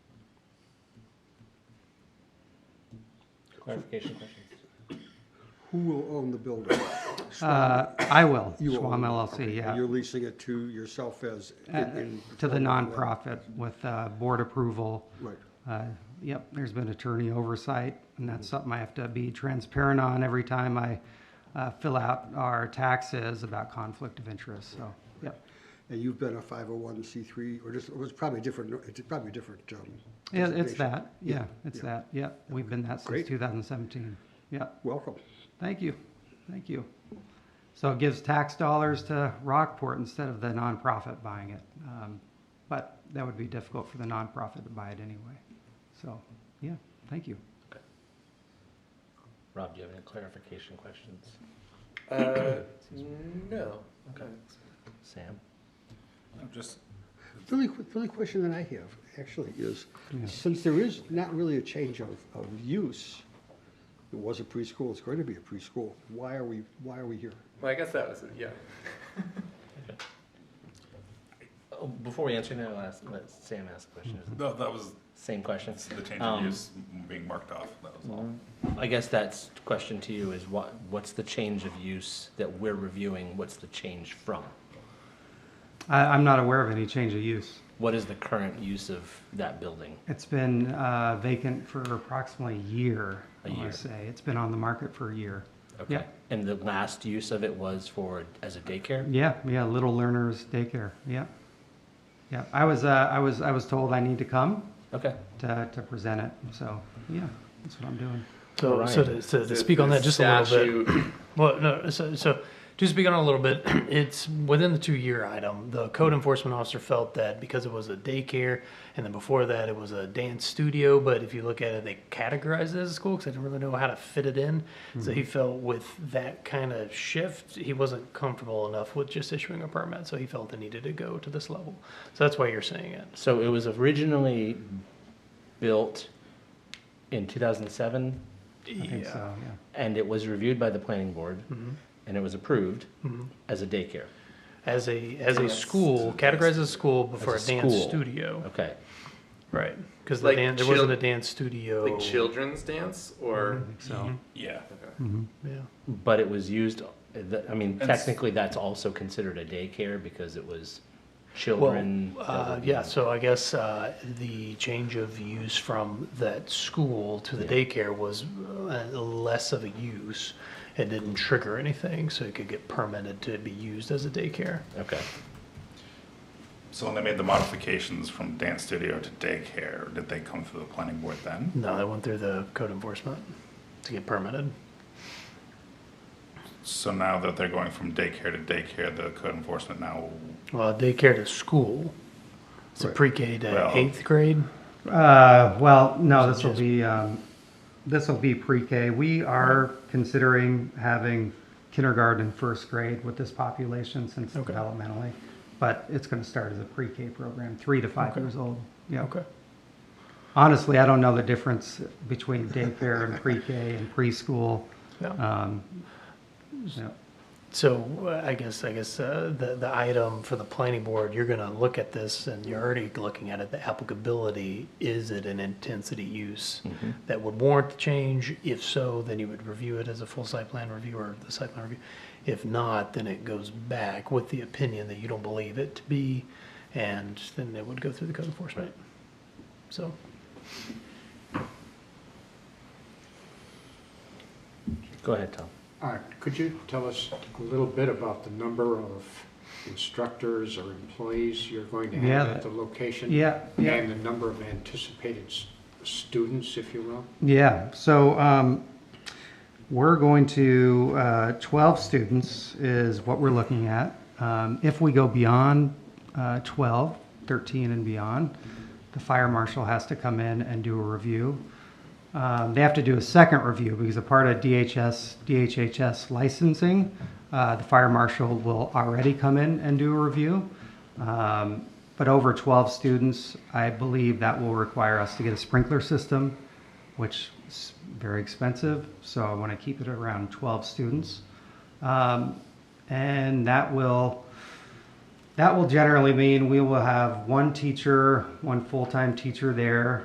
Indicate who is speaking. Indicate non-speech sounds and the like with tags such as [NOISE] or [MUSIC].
Speaker 1: clarification questions?
Speaker 2: Who will own the building?
Speaker 3: Uh, I will,
Speaker 2: You will own
Speaker 3: Swam
Speaker 2: it.
Speaker 3: LLC,
Speaker 2: And You're
Speaker 3: yeah. Uh,
Speaker 2: leasing it to yourself as? in- in-
Speaker 3: To the nonprofit with uh, board approval.
Speaker 2: Right.
Speaker 3: Uh, Yep, there's been attorney oversight, and that's something I have to be transparent on every time I uh, fill out our taxes about conflict of interest, so, yep.
Speaker 2: And you've been a 501c3, or just, it was probably different, it's probably different. um,
Speaker 3: Yeah, it's
Speaker 2: designation.
Speaker 3: that, yeah, it's
Speaker 2: yeah.
Speaker 3: that, yep. We've been that
Speaker 2: Great.
Speaker 3: since 2017, yep.
Speaker 2: Welcome.
Speaker 3: Thank you, thank you. So it gives tax dollars to Rockport instead of the nonprofit buying it. Um, But that would be difficult for the nonprofit to buy it anyway. So, yeah, thank you.
Speaker 1: Rob, do you have any clarification questions?
Speaker 4: Uh, no. Okay.
Speaker 1: Sam?
Speaker 5: I'm just,
Speaker 2: The only, que- the only question that I have actually is, since there is not really a change of, of use, it was a preschool, it's going to be a preschool, why are we, why are we here?
Speaker 4: Well, I guess that was it. Yeah.
Speaker 1: Oh, Before we answer, now, I'll ask, let Sam ask a question.
Speaker 5: no, that was
Speaker 1: Same questions?
Speaker 5: the change of
Speaker 1: Um,
Speaker 5: use being marked off, that was all.
Speaker 1: I guess that's, the question to you is what, what's the change of use that we're reviewing? What's the change from?
Speaker 3: I, I'm not aware of any change of use.
Speaker 1: What is the current use of that building?
Speaker 3: It's been uh, vacant for approximately a year,
Speaker 1: A
Speaker 3: I want
Speaker 1: year.
Speaker 3: to say. It's been on the market for a year.
Speaker 1: Okay. And the last use of it was for, as a daycare?
Speaker 3: Yeah, yeah, Little Learners Daycare, yeah. Yeah, I was, uh, I was, I was told I need to come
Speaker 1: Okay.
Speaker 3: to, to present it, so, yeah, that's what I'm doing.
Speaker 6: So, so
Speaker 1: Ryan.
Speaker 6: to, so to speak on that just a little bit.
Speaker 4: Statute-
Speaker 6: Well, no, so, so to speak on it a little bit, [CLEARS THROAT] it's within the two year item. The code enforcement officer felt that because it was a daycare and then before that it was a dance studio, but if you look at it, they categorized it as a school because they didn't really know how to fit it in. So he felt with that kind of shift, he wasn't comfortable enough with just issuing a permit. So he felt it needed to go to this level. So that's why you're saying it.
Speaker 1: So it was originally built in 2007
Speaker 3: I think so, yeah.
Speaker 1: and it was reviewed by the planning board and it was approved as a daycare.
Speaker 6: As a as a school, categorized as a school before a,
Speaker 1: As a
Speaker 6: dance
Speaker 1: school.
Speaker 6: studio.
Speaker 1: Okay.
Speaker 6: Right, because
Speaker 4: Like
Speaker 6: the dan- there
Speaker 4: chil-
Speaker 6: wasn't a dance studio.
Speaker 4: Like children's dance or
Speaker 6: Mm-hmm.
Speaker 4: Mm-hmm.
Speaker 3: So,
Speaker 5: Yeah,
Speaker 6: Yeah,
Speaker 1: But it was used, that- I mean,
Speaker 5: And s-
Speaker 1: technically that's also considered a daycare because it was
Speaker 6: well,
Speaker 1: children. that
Speaker 6: uh,
Speaker 1: were-
Speaker 6: yeah. So I guess uh, the change of use from that school to the daycare was uh, less of a use. It didn't trigger anything, so it could get permitted to be used as a daycare.
Speaker 1: Okay.
Speaker 5: so when they made the modifications from dance studio to daycare, did they come through the planning board then?
Speaker 6: No, they went through the code enforcement to get permitted.
Speaker 5: So now that they're going from daycare to daycare, the code enforcement now,
Speaker 6: Well, daycare to school. It's a pre-K to
Speaker 5: Well-
Speaker 6: eighth grade.
Speaker 3: uh, well, no, this will be, um, this will be pre-K. We are considering having kindergarten and first grade with this population since it's
Speaker 6: Okay.
Speaker 3: developmentally. But it's gonna start as a pre-K program, three to five years old, yeah.
Speaker 6: Okay.
Speaker 3: Honestly, I don't know the difference between daycare and pre-K and preschool.
Speaker 6: Yeah.
Speaker 3: Um, yeah.
Speaker 6: So uh, I guess, I guess uh, the, the item for the planning board, you're going to look at this and you're already looking at it, the applicability, is it an intensity use that would warrant the change? If so, then you would review it as a full site plan review or the site plan review. If not, then it goes back with the opinion that you don't believe it to be, and then it would go through the code enforcement. So,
Speaker 1: Go ahead, Tom.
Speaker 7: Uh, Could you tell us a little bit about the number of instructors or employees you're going to
Speaker 3: Yeah,
Speaker 7: have
Speaker 3: that-
Speaker 7: at the location?
Speaker 3: yeah, yeah.
Speaker 7: And the number of anticipated s- students, if you will?
Speaker 3: Yeah, so um, we're going to, uh, 12 students is what we're looking at. Um, If we go beyond uh, 12, 13 and beyond, the fire marshal has to come in and do a review. Um, They have to do a second review because a part of DHS, DHHS licensing, uh, the fire marshal will already come in and do a review. Um, But over 12 students, I believe that will require us to get a sprinkler system, which is very expensive, so I want to keep it around 12 students. Um, And that will, that will generally mean we will have one teacher, one full-time teacher there,